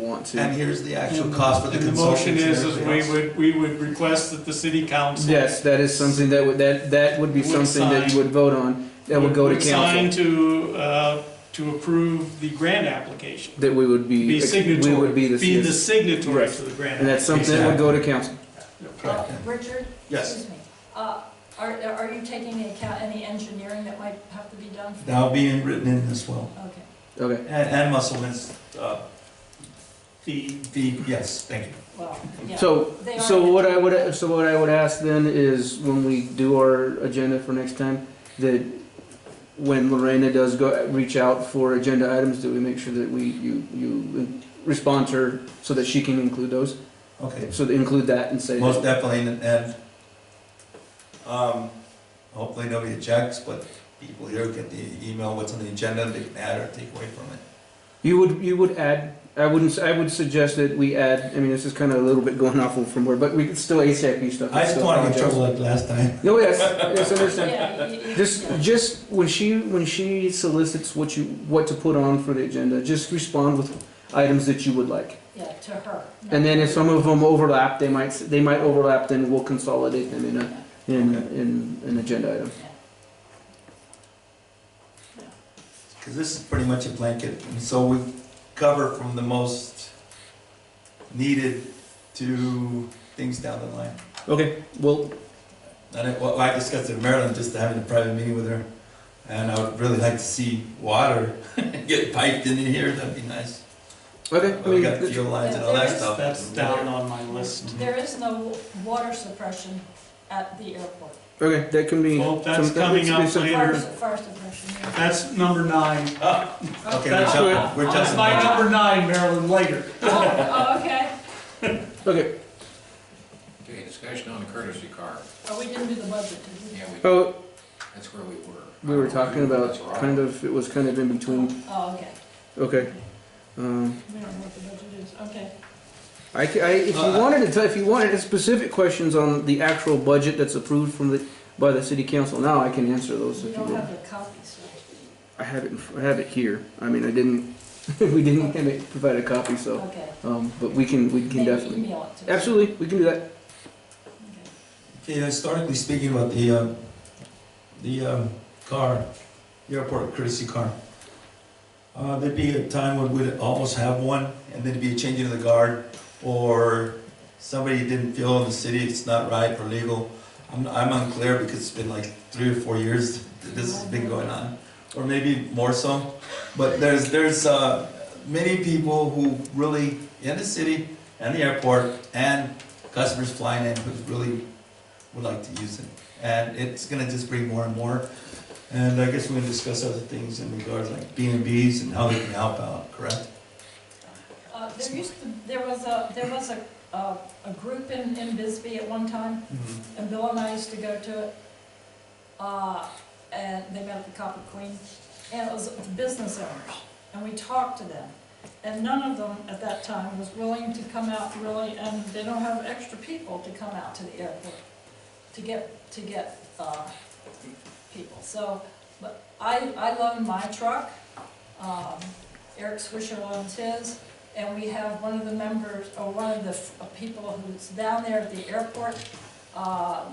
want And to. here's the actual cost for the And the motion consultants and is, is we everything else. would, we would request that the city council. Yes, that is something that would, that, that would be Would something that you sign- would vote on, that would go to Sign council. to, uh, to approve the grant application. That we would be, Be we signatory, would be be the. the signatory Right. to the grant. And that's something that would go to council. Uh, Okay. Richard? Yes. Excuse me. Uh, Are, are you taking into account any engineering that might have to be done? Now being written in as well. Okay. Okay. And, and Musselman's, uh, The, fee, yes, thank you. Well, yeah. So, They so are- what I would, uh, so what I would ask then is when we do our agenda for next time, that when Lorena does go, reach out for agenda items, that we make sure that we, you, you respond to her so that she can include those, Okay, so to include that and say. that- most definitely, and, and, um, hopefully nobody objects, but people here get the email, what's on the agenda, they can add or take away from it. You would, you would add, I wouldn't, s- I would suggest that we add, I mean, this is kind of a little bit going off from where, but we could still ASAP stuff. I just don't wanna get in trouble like last time. No, yes, yes, understand. Yeah, you- you- Just, yeah. just when she, when she solicits what you, what to put on for the agenda, just respond with items that you would like. Yeah, to her. And then if some of them overlap, they might, s- they might overlap, then we'll consolidate them in a, in, in an agenda item. Because this is pretty much a blanket, and so we cover from the most needed to things down the line. Okay, well, And it, well, I discussed in Maryland, just having a private meeting with her, and I would really like to see water get piped in here, that'd be nice. okay, I But we mean, got th- fuel lines and all that stuff. that's down on my list. There is no water suppression at the airport. okay, that can be. Well, that's some- that needs coming to be up some- later. Fire, su- fire suppression, yeah. That's number nine. Ah, Okay, we're That's jumping, we're That's jumping. my back. number nine, Marilyn, later. Oh, oh, okay. Okay, Okay, discussion on the courtesy car. Oh, we didn't do the budget, did we? Yeah, we, oh, that's where we were. We were talking about kind of, it was kind of in between, Oh, okay. okay. Um, We don't know what the budget is, okay. I, ca- I- if you wanted to, t- if you wanted specific questions on the actual budget that's approved from the, by the city council now, I can answer those We if you don't want. have the copies, I have it, in fr- I have it here, I mean, I didn't, we didn't have it, provide a copy, so, so, okay. um, but we can, we can Maybe definitely. email it to us. Absolutely, we can do that, Okay. Okay, historically speaking about the, um, the um, car, the airport courtesy car. Uh, There'd be a time when we'd almost have one, and there'd be a change of the guard, or somebody didn't feel in the city it's not right or legal. I'm, I'm unclear because it's been like three or four years that this has been going on, or maybe more so. But there's, there's uh, many people who really, in the city and the airport, and customers flying in who really would like to use it. And it's gonna just bring more and more. And I guess we're gonna discuss other things in regards like B and Bs and how they can help out, correct? Uh, There used to, there was a, there was a, a a group in, in Bisbee at one time, and Bill and I used to go to it. Uh, And they met at the Copper Queen, and it was the business owners, and we talked to them. And none of them at that time was willing to come out really, and they don't have extra people to come out to the airport to get, to get uh, people. So, but I, I loan my truck, um, Eric Swisher loans his, and we have one of the members, or one of the f- uh, people who's down there at the airport, uh,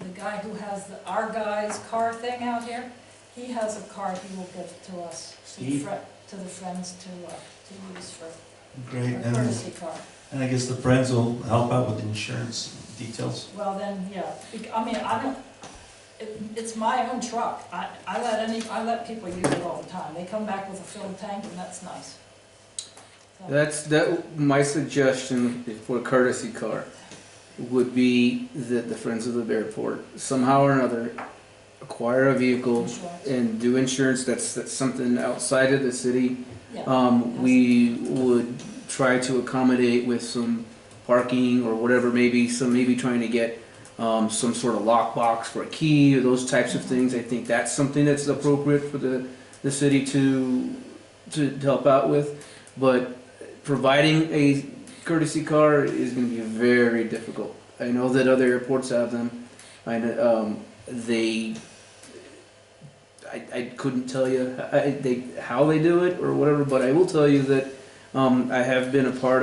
the guy who has the our guy's car thing out here, he has a car he will give to us, to the Steve? fri- to the friends to, uh, to use for Great, a and, courtesy car. and I guess the friends will help out with insurance details. Well, then, yeah, bec- I mean, I don't, it, it's my own truck, I, I let any, I let people use it all the time, they come back with a filled tank and that's nice. So- that's, that, my suggestion for a courtesy car would be that the Friends of the Airport somehow or another acquire a vehicle Insurance. and do insurance, that's, that's something outside of the city. Yeah, Um, we would try to accommodate with some parking or whatever, maybe some, maybe trying to get, um, some sort of lockbox for a key or those types of things. I think that's something that's appropriate for the, the city to, to to help out with. But providing a courtesy car is gonna be very difficult. I know that other airports have them. I, kn- um, they I, I couldn't tell you I, I- they, how they do it or whatever, but I will tell you that Um, I have been a part of.